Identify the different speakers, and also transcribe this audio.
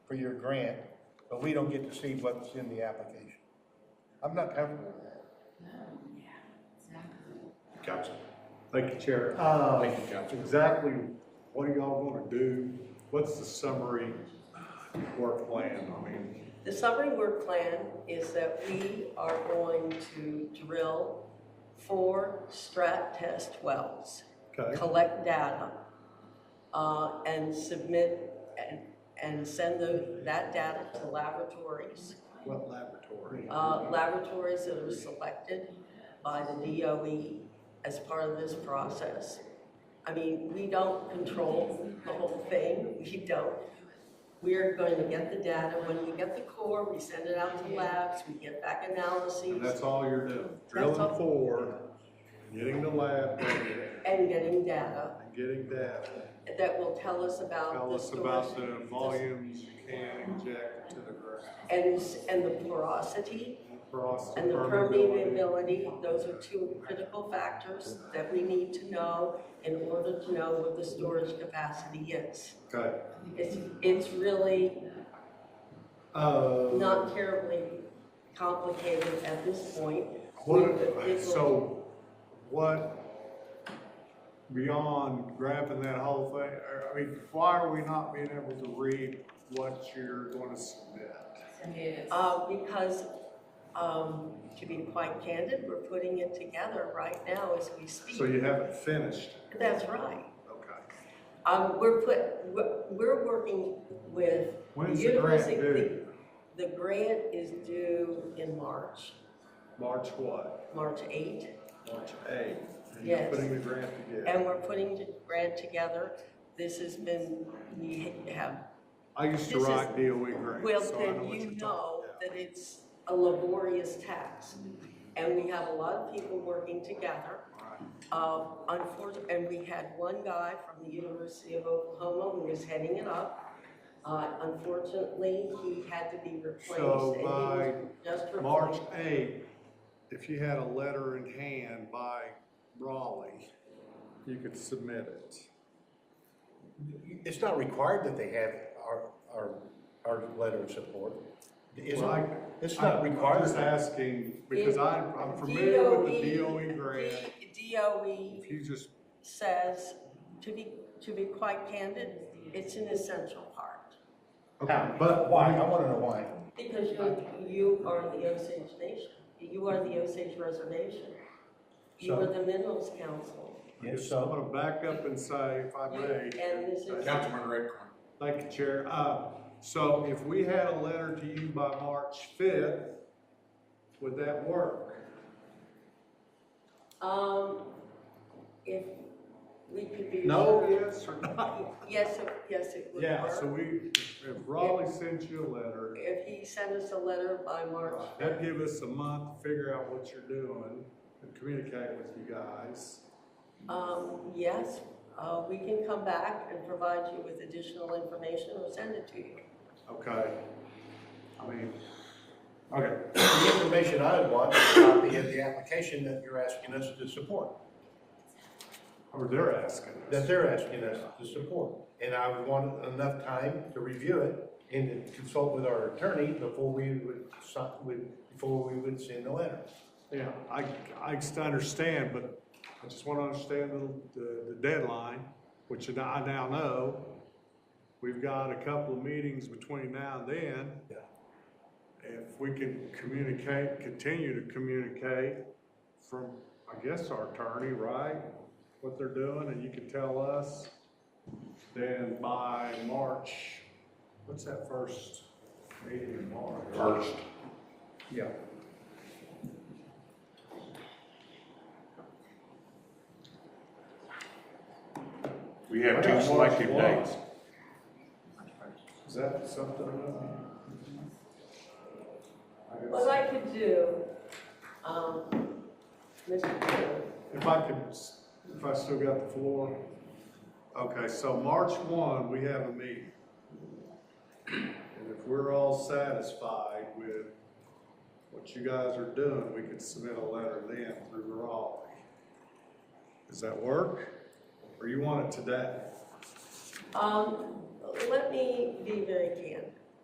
Speaker 1: for your grant, but we don't get to see what's in the application. I'm not comfortable with that.
Speaker 2: Council.
Speaker 3: Thank you, Chair. Uh,
Speaker 2: Thank you, Council.
Speaker 3: Exactly what are y'all gonna do? What's the summary work plan? I mean,
Speaker 4: The summary work plan is that we are going to drill four strat test wells,
Speaker 3: okay,
Speaker 4: collect data, uh, and submit and, and send the, that data to laboratories,
Speaker 3: what laboratory?
Speaker 4: uh, laboratories that are selected by the DOE as part of this process. I mean, we don't control the whole thing, we don't. We're going to get the data, when we get the core, we send it out to labs, we get back
Speaker 3: And
Speaker 4: analyses
Speaker 3: that's all you're doing, drilling
Speaker 4: all.
Speaker 3: for, getting the lab data,
Speaker 4: and getting data
Speaker 3: and getting that.
Speaker 4: that will tell us about
Speaker 3: Tell
Speaker 4: the
Speaker 3: us
Speaker 4: source.
Speaker 3: about the volumes you can inject to the ground.
Speaker 4: And, and the porosity
Speaker 3: Frost
Speaker 4: and the
Speaker 3: permeability.
Speaker 4: permeability, those are two critical factors that we need to know in order to know what the storage capacity is.
Speaker 3: Okay.
Speaker 4: It's, it's really
Speaker 3: Uh,
Speaker 4: not terribly complicated at this point.
Speaker 3: what, so what, beyond grabbing that whole thing, or, I mean, why are we not being able to read what you're gonna submit?
Speaker 4: Uh, because, um, to be quite candid, we're putting it together right now as we
Speaker 3: So
Speaker 4: speak.
Speaker 3: you haven't finished,
Speaker 4: That's right.
Speaker 3: okay.
Speaker 4: Um, we're put, we're, we're working with.
Speaker 3: When's the grant
Speaker 4: university-
Speaker 3: due?
Speaker 4: The grant is due in March,
Speaker 3: March what?
Speaker 4: March eighth.
Speaker 3: March eighth? And you're
Speaker 4: Yes.
Speaker 3: Putting the grant together.
Speaker 4: And we're putting the grant together. This has been, we have,
Speaker 3: I used to
Speaker 4: this is-
Speaker 3: write DOE
Speaker 4: well,
Speaker 3: grants, so I know
Speaker 4: then
Speaker 3: what
Speaker 4: you
Speaker 3: you're talking
Speaker 4: know
Speaker 3: about.
Speaker 4: that it's a laborious task. And we have a lot of people working together. Uh, unfortunately, and we had one guy from the University of Oklahoma who was heading it up. Uh, unfortunately, he had to be replaced and he
Speaker 3: So
Speaker 4: was just
Speaker 3: By
Speaker 4: replaced.
Speaker 3: March eighth, if you had a letter in hand by Raleigh, you could submit it.
Speaker 1: It's not required that they have our, our, our letter of support. Is
Speaker 3: Well, I-
Speaker 1: it? It's not required.
Speaker 3: I'm just asking, because I, I'm familiar with the DOE E grant,
Speaker 4: E D- DOE
Speaker 3: if you just,
Speaker 4: says, to be, to be quite candid, it's an essential part.
Speaker 3: okay,
Speaker 1: But
Speaker 3: but.
Speaker 1: why? I wanna know why.
Speaker 4: Because you, you are the Osage Nation, you are the Osage Reservation. You are the Minerals Council,
Speaker 1: Yes,
Speaker 3: I'm
Speaker 1: so,
Speaker 3: gonna back up and say, if I
Speaker 4: and
Speaker 3: may,
Speaker 4: this is,
Speaker 2: Councilman Redcorn.
Speaker 3: thank you, Chair, uh, so if we had a letter to you by March fifth, would that work?
Speaker 4: um, if we could be.
Speaker 3: No, yes, or no?
Speaker 4: Yes, it- yes, it would
Speaker 3: Yeah, so
Speaker 4: work.
Speaker 3: we, if Raleigh sent you a letter,
Speaker 4: If he sent us a letter by March,
Speaker 3: That'd give us a month to figure out what you're doing and communicate with you guys.
Speaker 4: um, yes, uh, we can come back and provide you with additional information or send it to you.
Speaker 3: Okay. I mean, okay,
Speaker 1: the information I want is a copy of the application that you're asking us to support,
Speaker 3: or they're asking
Speaker 1: that
Speaker 3: us.
Speaker 1: they're asking us to support. And I would want enough time to review it and to consult with our attorney before we would, sign- would- before we would send the letter.
Speaker 3: Yeah, I, I just understand, but I just want to understand the, the- the deadline, which I now know. We've got a couple of meetings between now and then.
Speaker 1: Yeah.
Speaker 3: If we can communicate, continue to communicate from, I guess, our attorney, right? What they're doing, and you can tell us, then by March, what's that first meeting in March?
Speaker 2: First.
Speaker 3: Yeah.
Speaker 2: We have two selective dates.
Speaker 3: Is that something? I guess-
Speaker 4: What I could do, um, Mr. Chair,
Speaker 3: If I could, s- if I still got the floor. Okay, so March one, we have a meeting. And if we're all satisfied with what you guys are doing, we could submit a letter then through Raleigh. Does that work? Or you want it today?
Speaker 4: um, let me be very candid.